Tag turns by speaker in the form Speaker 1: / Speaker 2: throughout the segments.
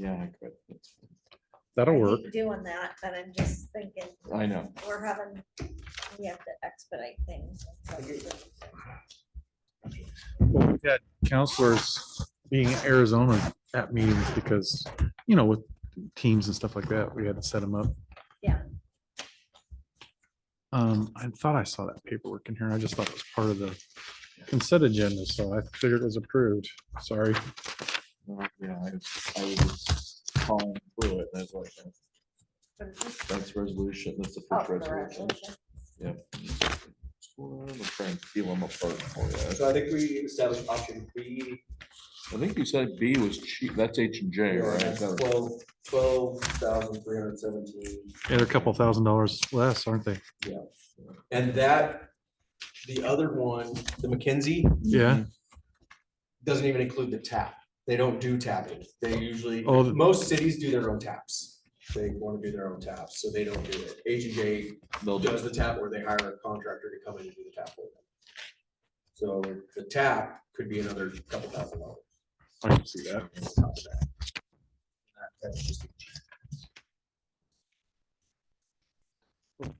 Speaker 1: Yeah, I could. It's-
Speaker 2: That'll
Speaker 3: I
Speaker 2: work.
Speaker 3: hate Doing that, but I'm just thinking,
Speaker 1: I know.
Speaker 3: we're having, we have to expedite things.
Speaker 2: Well, We've had counselors being in Arizona at meetings because, you know, with teams and stuff like that, we had to set them up.
Speaker 3: Yeah.
Speaker 2: Um, I thought I saw that paperwork in here. I just thought it was part of the consent agenda, so I figured it was approved. Sorry.
Speaker 1: Uh, Yeah, I I was just calling through it. and I was like, that's- That's resolution, that's the
Speaker 3: Oh,
Speaker 1: first resolution. Yep. I'm gonna try and peel them apart for you.
Speaker 4: So I think we established option B.
Speaker 1: I think you said B was cheap, that's H and J, right? That was-
Speaker 4: Twelve, twelve thousand three hundred seventeen,
Speaker 2: They're a couple thousand dollars less, aren't they?
Speaker 4: and that, the other one, the McKinsey,
Speaker 2: Yeah.
Speaker 4: doesn't even include the tap. They don't do tapping. They usually,
Speaker 2: Oh, the-
Speaker 4: most cities do their own taps. They want to do their own taps, so they don't do it. H and J
Speaker 1: They'll do
Speaker 4: does the tap or they hire a contractor to come in and do the tap for them. So the tap could be another couple thousand dollars.
Speaker 2: I can see that.
Speaker 4: on top of that. That's just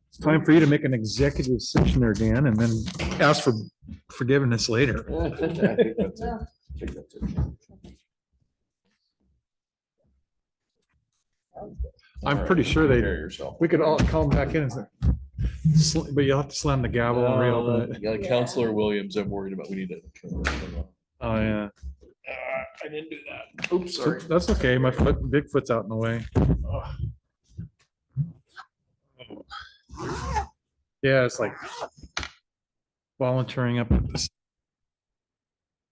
Speaker 2: It's time for you to make an executive session there, Dan, and then ask for forgiveness later.
Speaker 1: I think that's it. I think that's it.
Speaker 2: I'm pretty sure they-
Speaker 1: Hear yourself.
Speaker 2: We could all call them back in and say, "Sl- but you'll have to slam the gavel and reopen
Speaker 1: Uh,
Speaker 2: it.
Speaker 1: Yeah, Counselor Williams, I'm worried about, we need to. turn her off.
Speaker 2: Oh, yeah.
Speaker 1: Uh, I didn't do that. Oops,
Speaker 2: So That's okay. My foot, big foot's out in the way. Yeah, it's like volunteering up at this